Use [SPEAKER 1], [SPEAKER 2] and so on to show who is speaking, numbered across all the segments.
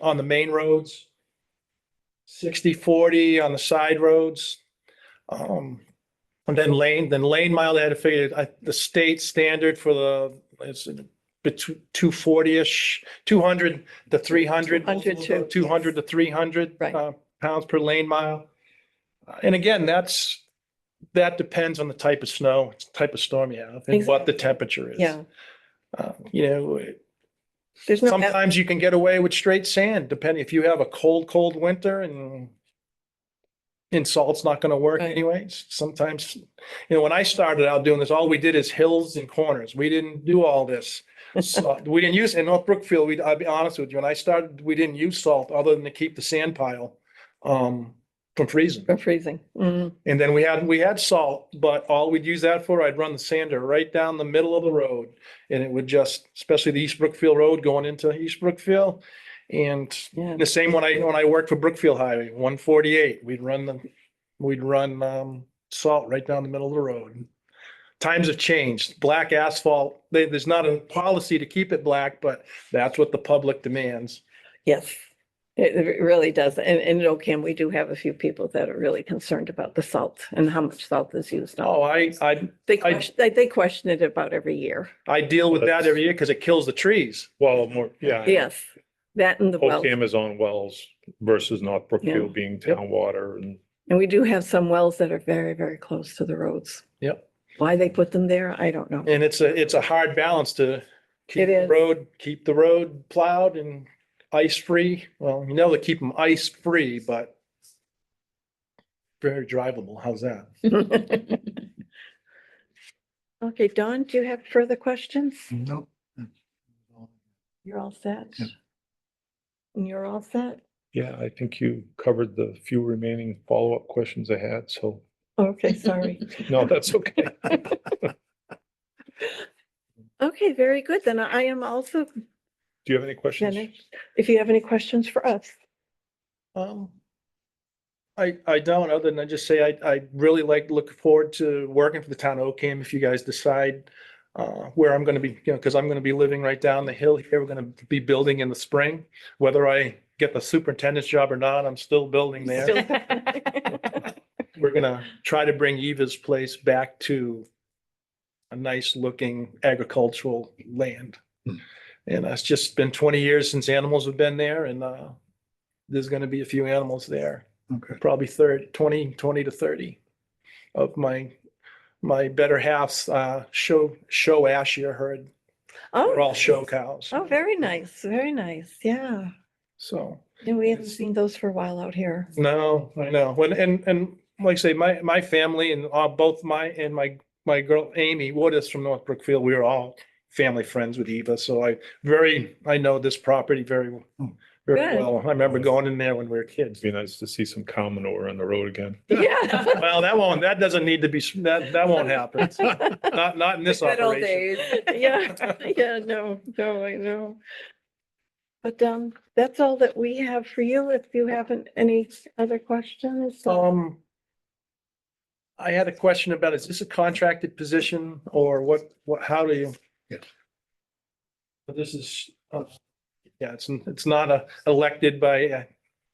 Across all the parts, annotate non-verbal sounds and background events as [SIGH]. [SPEAKER 1] on the main roads. 60, 40 on the side roads. Um, and then lane, then lane mile, they had to figure, I, the state standard for the, it's between two forty-ish, two hundred to three hundred.
[SPEAKER 2] 200 too.
[SPEAKER 1] Two hundred to three hundred. uh,
[SPEAKER 2] Right.
[SPEAKER 1] Pounds per lane mile. Uh, And again, that's, that depends on the type of snow, type of storm you have and what the
[SPEAKER 2] Exactly.
[SPEAKER 1] temperature is.
[SPEAKER 2] Yeah,
[SPEAKER 1] Uh, You know,
[SPEAKER 2] there's no, out-
[SPEAKER 1] Sometimes you can get away with straight sand, depending if you have a cold, cold winter and and salt's not gonna work
[SPEAKER 2] Right.
[SPEAKER 1] anyways. Sometimes, you know, when I started out doing this, all we did is hills and corners. We didn't do all
[SPEAKER 2] [LAUGHS]
[SPEAKER 1] this. So, We didn't use, in North Brookfield, we, I'll be honest with you, when I started, we didn't use salt other than to keep the sand pile um, from freezing.
[SPEAKER 2] from freezing. Mhm.
[SPEAKER 1] And then we had, we had salt, but all we'd use that for, I'd run the sander right down the middle of the road. And it would just, especially the East Brookfield Road going into East Brookfield. And
[SPEAKER 2] Yeah,
[SPEAKER 1] the same when I, when I worked for Brookfield Highway, one forty-eight, we'd run the, we'd run, um, salt right down the middle of the road. Times have changed. Black asphalt, there, there's not a policy to keep it black, but that's what the public demands.
[SPEAKER 2] yes, it it really does. And, and in Ocam, we do have a few people that are really concerned about the salt and how much salt is used. on-
[SPEAKER 1] Oh, I, I,
[SPEAKER 2] They
[SPEAKER 1] I-
[SPEAKER 2] question, they, they question it about every year.
[SPEAKER 1] I deal with that
[SPEAKER 3] That's-
[SPEAKER 1] every year because it kills the trees.
[SPEAKER 3] Well, more, yeah.
[SPEAKER 2] Yes, that and the
[SPEAKER 1] Oh,
[SPEAKER 2] wells.
[SPEAKER 3] Ocam is on wells versus North Brookfield being town water and
[SPEAKER 2] And we do have some wells that are very, very close to the roads.
[SPEAKER 1] Yep.
[SPEAKER 2] Why they put them there, I don't know.
[SPEAKER 1] And it's a, it's a hard balance to keep
[SPEAKER 2] It
[SPEAKER 1] the
[SPEAKER 2] is.
[SPEAKER 1] road, keep the road plowed and ice free. Well, you know, to keep them ice free, but very drivable. How's that?
[SPEAKER 2] [LAUGHS] Okay, Don, do you have further questions?
[SPEAKER 1] Mm.
[SPEAKER 4] Nope.
[SPEAKER 2] You're all set?
[SPEAKER 4] Yeah.
[SPEAKER 2] And You're all set?
[SPEAKER 3] yeah, I think you covered the few remaining follow-up questions I had, so
[SPEAKER 2] Okay, sorry.
[SPEAKER 3] no, that's okay.
[SPEAKER 2] Okay, very good. Then I am also,
[SPEAKER 3] Do you have any questions?
[SPEAKER 2] Jenny, if you have any questions for us.
[SPEAKER 1] Um, I, I don't, other than I just say, I, I really like, look forward to working for the town of Ocam if you guys decide uh, where I'm gonna be, you know, because I'm gonna be living right down the hill here. We're gonna be building in the spring. Whether I get the superintendent's job or not, I'm still building there.
[SPEAKER 2] [LAUGHS]
[SPEAKER 1] we're gonna try to bring Eva's place back to a nice looking agricultural land. And it's just been twenty years since animals have been there and uh, there's gonna be a few animals there,
[SPEAKER 4] Okay.
[SPEAKER 1] probably thirty, twenty, twenty to thirty of my, my better halves, uh, show, show ash year herd. They're all
[SPEAKER 2] Oh,
[SPEAKER 1] show cows.
[SPEAKER 2] oh, very nice, very nice. Yeah.
[SPEAKER 1] So,
[SPEAKER 2] Yeah, we haven't
[SPEAKER 1] It's-
[SPEAKER 2] seen those for a while
[SPEAKER 1] [LAUGHS]
[SPEAKER 2] out here.
[SPEAKER 1] no, I know. When, and, and like I say, my, my family and uh, both my, and my my girl Amy Wood is from North Brookfield. We were all family friends with Eva, so I very, I know this property very,
[SPEAKER 4] Hmm.
[SPEAKER 1] very
[SPEAKER 2] Good.
[SPEAKER 1] well. I remember going in there when we were kids.
[SPEAKER 3] It'd be nice to see some cow manure on the road again.
[SPEAKER 2] [LAUGHS] Yeah.
[SPEAKER 1] Well, that won't, that doesn't need to be, s- that, that
[SPEAKER 5] [LAUGHS]
[SPEAKER 1] won't happen. Not, not in this
[SPEAKER 5] Good old
[SPEAKER 1] operation.
[SPEAKER 5] days.
[SPEAKER 2] Yeah,
[SPEAKER 1] [LAUGHS]
[SPEAKER 2] yeah, no, no, I know. But um, that's all that we have for you. If you haven't any other questions. uh,
[SPEAKER 1] Um, I had a question about, is this a contracted position or what, what, how do you?
[SPEAKER 4] Yeah.
[SPEAKER 1] But This is, uh, yeah, it's, it's not a elected by, uh,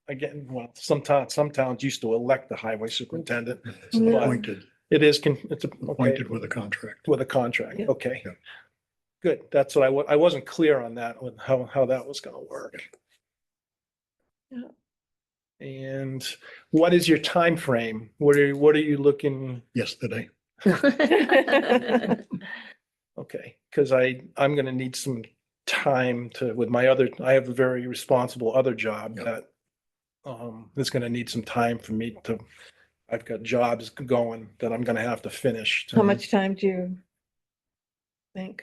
[SPEAKER 1] again, well, some towns, some towns used to elect the highway superintendent.
[SPEAKER 4] It's
[SPEAKER 2] Yeah.
[SPEAKER 4] Appointed,
[SPEAKER 1] It is, con- it's a- okay,
[SPEAKER 4] appointed with a contract.
[SPEAKER 1] with a contract,
[SPEAKER 2] Yeah.
[SPEAKER 1] okay.
[SPEAKER 4] Yeah.
[SPEAKER 1] Good, that's what I wa- I wasn't clear on that, on how, how that was gonna work.
[SPEAKER 2] Yeah.
[SPEAKER 1] And what is your time frame? What are, what are you looking?
[SPEAKER 4] Yesterday,
[SPEAKER 1] Okay, because I, I'm gonna need some time to, with my other, I have a very responsible other job
[SPEAKER 4] Yeah.
[SPEAKER 1] that um, is gonna need some time for me to, I've got jobs going that I'm gonna have to finish. to-
[SPEAKER 2] [LAUGHS] How much time do you think?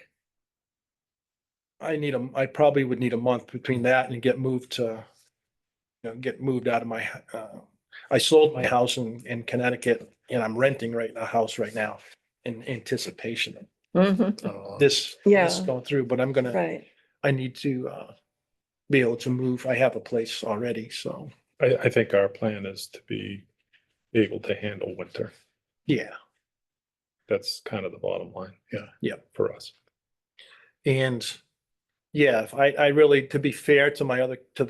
[SPEAKER 1] I need a, I probably would need a month between that and get moved to, you know, get moved out of my, h- uh, I sold my house in, in Connecticut and I'm renting right, a house right now in anticipation of Mm-hmm.
[SPEAKER 4] uh,
[SPEAKER 1] this, this
[SPEAKER 2] Yeah.
[SPEAKER 1] going through, but I'm gonna
[SPEAKER 2] Right,
[SPEAKER 1] I need to uh be able to move. I have a place already, so,
[SPEAKER 3] I, I think our plan is to be able to handle winter.
[SPEAKER 1] yeah.
[SPEAKER 3] That's kind of the bottom line.
[SPEAKER 4] Yeah.
[SPEAKER 1] Yeah.
[SPEAKER 3] For us.
[SPEAKER 1] And yeah, if I I really, to be fair to my other, to